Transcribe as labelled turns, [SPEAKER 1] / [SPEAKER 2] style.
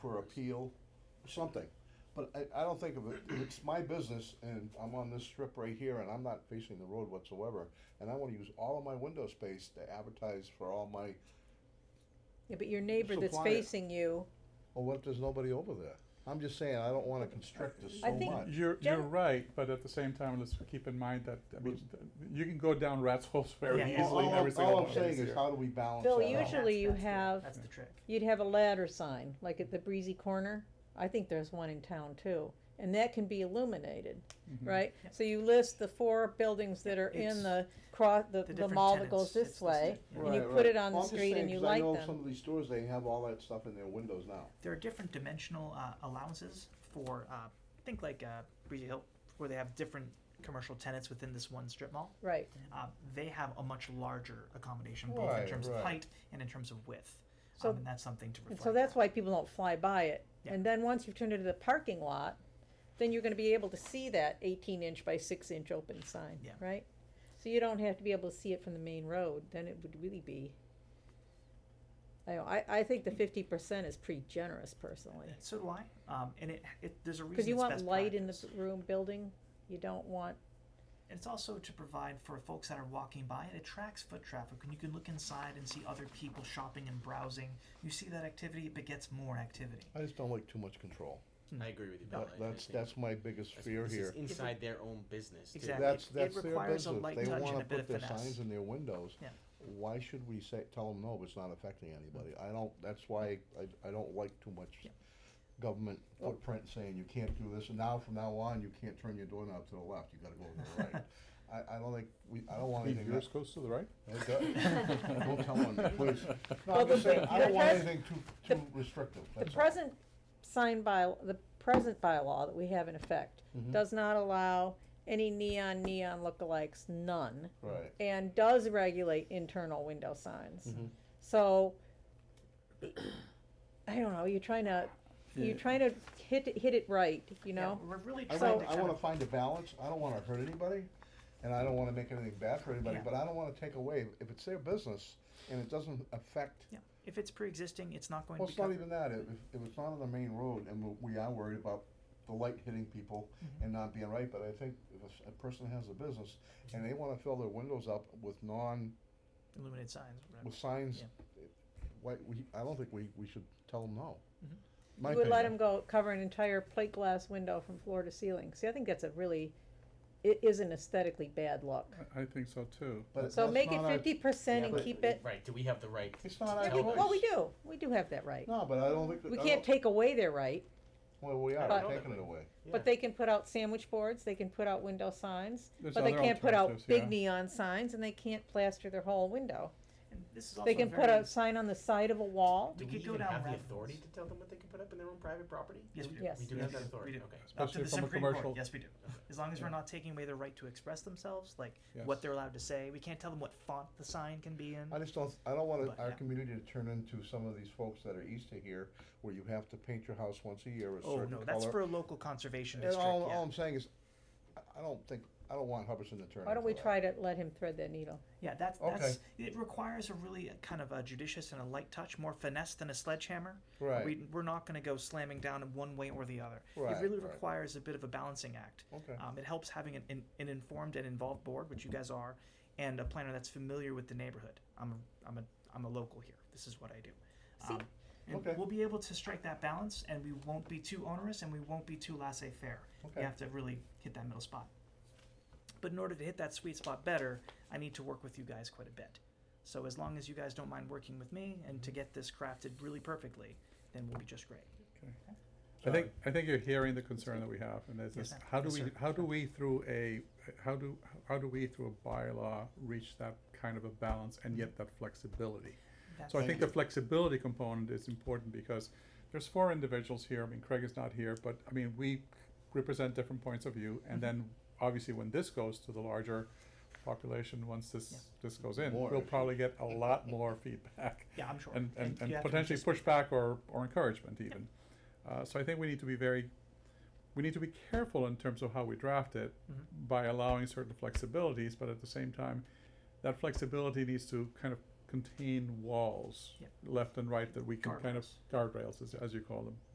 [SPEAKER 1] for appeal, something. But I, I don't think of it, if it's my business and I'm on this strip right here and I'm not facing the road whatsoever, and I wanna use all of my window space to advertise for all my,
[SPEAKER 2] Yeah, but your neighbor
[SPEAKER 1] so
[SPEAKER 2] that's
[SPEAKER 1] quiet.
[SPEAKER 2] facing you,
[SPEAKER 1] well, what if there's nobody over there? I'm just saying, I don't wanna constrict this
[SPEAKER 2] I
[SPEAKER 1] so
[SPEAKER 2] think-
[SPEAKER 1] much.
[SPEAKER 3] You're, you're
[SPEAKER 2] Gen-
[SPEAKER 3] right, but at the same time, let's keep in mind that, I mean, th- you can go down rat's holes very
[SPEAKER 4] Yeah, yeah.
[SPEAKER 1] All-
[SPEAKER 3] easily
[SPEAKER 1] all-
[SPEAKER 3] every single
[SPEAKER 1] All
[SPEAKER 3] one
[SPEAKER 1] I'm
[SPEAKER 3] of
[SPEAKER 1] saying
[SPEAKER 3] these
[SPEAKER 1] is,
[SPEAKER 3] here.
[SPEAKER 1] how do we balance
[SPEAKER 2] Bill,
[SPEAKER 1] that out?
[SPEAKER 2] usually- you
[SPEAKER 4] That's- that's the-
[SPEAKER 2] have-
[SPEAKER 4] That's the trick.
[SPEAKER 2] you'd have a ladder sign, like at the breezy corner. I think there's one in town too, and that can be illuminated,
[SPEAKER 3] Mhm.
[SPEAKER 2] right?
[SPEAKER 4] Yep.
[SPEAKER 2] So you list the four buildings that are
[SPEAKER 4] Mm-hmm. It's
[SPEAKER 2] in the cross, the, the
[SPEAKER 4] different
[SPEAKER 2] mall that
[SPEAKER 4] tenants,
[SPEAKER 2] goes this
[SPEAKER 4] it's
[SPEAKER 2] way,
[SPEAKER 4] listed.
[SPEAKER 2] and you
[SPEAKER 1] Right,
[SPEAKER 2] put
[SPEAKER 1] right.
[SPEAKER 2] it on
[SPEAKER 1] Well,
[SPEAKER 2] the
[SPEAKER 1] I'm just
[SPEAKER 2] street
[SPEAKER 1] saying,
[SPEAKER 2] and you
[SPEAKER 1] 'cause I
[SPEAKER 2] light
[SPEAKER 1] know
[SPEAKER 2] them.
[SPEAKER 1] Some of these stores, they have all that stuff in their windows now.
[SPEAKER 4] There are different dimensional uh, allowances for, uh, think like uh, Breezy Hill, where they have different commercial tenants within this one strip mall.
[SPEAKER 2] Right,
[SPEAKER 4] Uh, they have a much larger accommodation, both
[SPEAKER 1] Right,
[SPEAKER 4] in terms
[SPEAKER 1] right.
[SPEAKER 4] of height and in terms of width.
[SPEAKER 2] So-
[SPEAKER 4] um, and that's something to
[SPEAKER 2] and
[SPEAKER 4] reflect.
[SPEAKER 2] so that's why people don't fly by it.
[SPEAKER 4] Yeah.
[SPEAKER 2] And then once you've turned it into the parking lot, then you're gonna be able to see that eighteen inch by six inch open sign,
[SPEAKER 4] Yeah.
[SPEAKER 2] right? So you don't have to be able to see it from the main road, then it would really be. I, don't- I, I think the fifty percent is pretty generous personally,
[SPEAKER 4] And So do I. Um, and it, it there's a reason.
[SPEAKER 2] cause you
[SPEAKER 4] it's
[SPEAKER 2] want
[SPEAKER 4] best
[SPEAKER 2] light in the
[SPEAKER 4] practice.
[SPEAKER 2] b- room building, you don't want,
[SPEAKER 4] And it's also to provide for folks that are walking by. It attracts foot traffic, and you can look inside and see other people shopping and browsing. You see that activity, it begets more activity.
[SPEAKER 1] I just don't like too much control.
[SPEAKER 5] I agree with you, Bill.
[SPEAKER 1] That-
[SPEAKER 5] I- I
[SPEAKER 1] That's,
[SPEAKER 5] think
[SPEAKER 1] that's my biggest
[SPEAKER 5] that's-
[SPEAKER 1] fear
[SPEAKER 5] this is
[SPEAKER 1] here.
[SPEAKER 5] inside their own business. too.
[SPEAKER 4] Exactly.
[SPEAKER 1] That's,
[SPEAKER 4] It-
[SPEAKER 1] that's
[SPEAKER 4] it
[SPEAKER 1] their
[SPEAKER 4] requires a
[SPEAKER 1] business.
[SPEAKER 4] light
[SPEAKER 1] They
[SPEAKER 4] touch and
[SPEAKER 1] wanna
[SPEAKER 4] a bit
[SPEAKER 1] put
[SPEAKER 4] of
[SPEAKER 1] their
[SPEAKER 4] finesse.
[SPEAKER 1] signs in their windows.
[SPEAKER 4] Yeah.
[SPEAKER 1] Why should we say, tell them, no, it's not affecting anybody? I don't, that's why I, I don't like too much
[SPEAKER 4] Mm. Yeah.
[SPEAKER 1] government footprint saying you can't do this. And now, from now on, you can't turn your doorknob to the left. You gotta go to the right. I, I don't think, we, I don't want
[SPEAKER 3] Leave
[SPEAKER 1] anything. that-
[SPEAKER 3] yours goes to the right?
[SPEAKER 1] Oh, it does? Don't tell on me, please. No,
[SPEAKER 2] Well,
[SPEAKER 1] I'm just
[SPEAKER 2] the-
[SPEAKER 1] saying, I don't
[SPEAKER 2] the
[SPEAKER 1] want
[SPEAKER 2] pres-
[SPEAKER 1] anything too,
[SPEAKER 2] the-
[SPEAKER 1] too restrictive,
[SPEAKER 2] the
[SPEAKER 1] that's all.
[SPEAKER 2] present sign by, the present bylaw that we have in effect
[SPEAKER 4] Mm-hmm.
[SPEAKER 1] Mhm.
[SPEAKER 2] does not allow any neon, neon lookalikes, none.
[SPEAKER 1] Right.
[SPEAKER 2] and does regulate internal window signs.
[SPEAKER 1] Mhm.
[SPEAKER 2] So, I don't know, you're trying to, you're trying to hit, it- hit it right, you know?
[SPEAKER 4] yeah, we're really
[SPEAKER 1] I
[SPEAKER 4] trying
[SPEAKER 1] want,
[SPEAKER 4] to
[SPEAKER 1] I
[SPEAKER 4] kind
[SPEAKER 1] wanna
[SPEAKER 4] of
[SPEAKER 1] find a balance, I don't wanna hurt anybody, and I don't wanna make anything bad for anybody,
[SPEAKER 4] Yeah.
[SPEAKER 1] but I don't wanna take away, if it's their business, and it doesn't affect,
[SPEAKER 4] Yeah, if it's pre-existing, it's not going
[SPEAKER 1] well,
[SPEAKER 4] to be
[SPEAKER 1] it's not
[SPEAKER 4] covered.
[SPEAKER 1] even that, if, if it's not on the main road, and we- we are worried about the light hitting people
[SPEAKER 2] Mm-hmm.
[SPEAKER 1] and not being right, but I think if a s- a person has a business, and they wanna fill their windows up with non,
[SPEAKER 4] illuminated signs. whatever.
[SPEAKER 1] with signs, why, we, I don't think we, we should tell them no.
[SPEAKER 4] Mhm.
[SPEAKER 1] My
[SPEAKER 2] Mm-hmm. You would let
[SPEAKER 1] opinion.
[SPEAKER 2] them go cover an entire plate glass window from floor to ceiling. See, I think that's a really, it is an aesthetically bad look.
[SPEAKER 3] I- I think so too.
[SPEAKER 1] But
[SPEAKER 2] So
[SPEAKER 1] that's
[SPEAKER 2] make it
[SPEAKER 1] not our-
[SPEAKER 2] fifty percent
[SPEAKER 5] Yeah,
[SPEAKER 2] and
[SPEAKER 5] but-
[SPEAKER 2] keep it,
[SPEAKER 5] Right, do we have the right?
[SPEAKER 1] It's
[SPEAKER 5] to
[SPEAKER 1] not our
[SPEAKER 2] yeah,
[SPEAKER 5] tell
[SPEAKER 2] we,
[SPEAKER 1] choice.
[SPEAKER 5] them?
[SPEAKER 2] well, we do, we do have that right.
[SPEAKER 1] No, but I don't think. that-
[SPEAKER 2] We
[SPEAKER 1] I
[SPEAKER 2] can't
[SPEAKER 1] don't-
[SPEAKER 2] take away their right,
[SPEAKER 1] Well, we are,
[SPEAKER 2] but-
[SPEAKER 1] we're taking it away.
[SPEAKER 2] but they can put out sandwich boards, they can put out window signs,
[SPEAKER 3] There's
[SPEAKER 2] But they
[SPEAKER 3] other
[SPEAKER 2] can't put out
[SPEAKER 3] alternatives, yeah.
[SPEAKER 2] big neon signs and they can't plaster their whole window.
[SPEAKER 4] And this is also
[SPEAKER 2] They can
[SPEAKER 4] very,
[SPEAKER 2] put a sign on the side of a wall.
[SPEAKER 5] Do
[SPEAKER 4] We
[SPEAKER 5] we
[SPEAKER 4] could go
[SPEAKER 5] even
[SPEAKER 4] down
[SPEAKER 5] have the
[SPEAKER 4] rabbit
[SPEAKER 5] authority
[SPEAKER 4] holes.
[SPEAKER 5] to tell them what they can put up in their own private property?
[SPEAKER 4] Yes, we do.
[SPEAKER 2] Yes.
[SPEAKER 5] We do
[SPEAKER 4] Yes,
[SPEAKER 5] have that
[SPEAKER 4] we
[SPEAKER 5] authority,
[SPEAKER 4] do.
[SPEAKER 5] okay.
[SPEAKER 4] up to
[SPEAKER 3] Especially
[SPEAKER 4] the
[SPEAKER 3] from a
[SPEAKER 4] Supreme Court,
[SPEAKER 3] commercial-
[SPEAKER 4] Yes, we do. As long as we're not taking away their right to express themselves, like
[SPEAKER 3] Yes.
[SPEAKER 4] what they're allowed to say, we can't tell them what font the sign can be in.
[SPEAKER 1] I just don't, I don't want
[SPEAKER 4] But,
[SPEAKER 1] our
[SPEAKER 4] yeah.
[SPEAKER 1] community to turn into some of these folks that are east of here, where you have to paint your house once a year a certain
[SPEAKER 4] Oh
[SPEAKER 1] color.
[SPEAKER 4] no, that's for a local conservation
[SPEAKER 1] And
[SPEAKER 4] district.
[SPEAKER 1] all,
[SPEAKER 4] yeah.
[SPEAKER 1] all I'm saying is, I- I don't think, I don't want Hubbardson to turn.
[SPEAKER 2] Why don't we
[SPEAKER 1] into that.
[SPEAKER 2] try to let him thread that needle?
[SPEAKER 4] Yeah, that's
[SPEAKER 1] Okay.
[SPEAKER 4] that's it requires a really uh, kind of a judicious and a light touch, more finesse than a sledgehammer.
[SPEAKER 1] Right.
[SPEAKER 4] We, we're not going to go slamming down in one way or the other.
[SPEAKER 1] Right,
[SPEAKER 4] it really
[SPEAKER 1] right.
[SPEAKER 4] requires a bit of a balancing act.
[SPEAKER 1] Okay.
[SPEAKER 4] Um, it helps having an, an, an informed and involved board, which you guys are, and a planner that's familiar with the neighborhood. I'm a, I'm a, I'm a local here. This is what I do.
[SPEAKER 2] See-
[SPEAKER 4] Um, and
[SPEAKER 1] Okay.
[SPEAKER 4] we'll be able to strike that balance, and we won't be too onerous, and we won't be too laissez-faire.
[SPEAKER 1] Okay.
[SPEAKER 4] You have to really hit that middle spot. But in order to hit that sweet spot better, I need to work with you guys quite a bit. So as long as you guys don't mind working with me and to get this crafted really perfectly, then we'll be just great.
[SPEAKER 3] I think, I think you're hearing the concern that we have, and this
[SPEAKER 4] Yes,
[SPEAKER 3] is,
[SPEAKER 4] ma'am.
[SPEAKER 3] how do
[SPEAKER 4] Yes,
[SPEAKER 3] we,
[SPEAKER 4] sir.
[SPEAKER 3] how do we through a, how do, how do we through a bylaw reach that kind of a balance and yet that flexibility? So I
[SPEAKER 4] That's-
[SPEAKER 3] think the flexibility component is important because there's four individuals here, I mean, Craig is not here, but, I mean, we represent different points of view,
[SPEAKER 4] Mm-hmm.
[SPEAKER 3] and then, obviously, when this goes to the larger population, once
[SPEAKER 4] Yeah.
[SPEAKER 3] this, this goes in,
[SPEAKER 1] More,
[SPEAKER 3] we'll
[SPEAKER 1] actually.
[SPEAKER 3] probably get a lot more feedback.
[SPEAKER 4] Yeah, I'm sure.
[SPEAKER 3] And, and, and
[SPEAKER 4] you have to be
[SPEAKER 3] potentially
[SPEAKER 4] just-
[SPEAKER 3] pushback or, or encouragement even. Uh, so I think we need to be very, we need to be careful in terms of how we draft it
[SPEAKER 4] Mhm.
[SPEAKER 3] by allowing certain flexibilities, but at the same time, that flexibility needs to kind of contain walls,
[SPEAKER 4] Yep.
[SPEAKER 3] left and right, that we can kind of, guardrails, as, as you call them.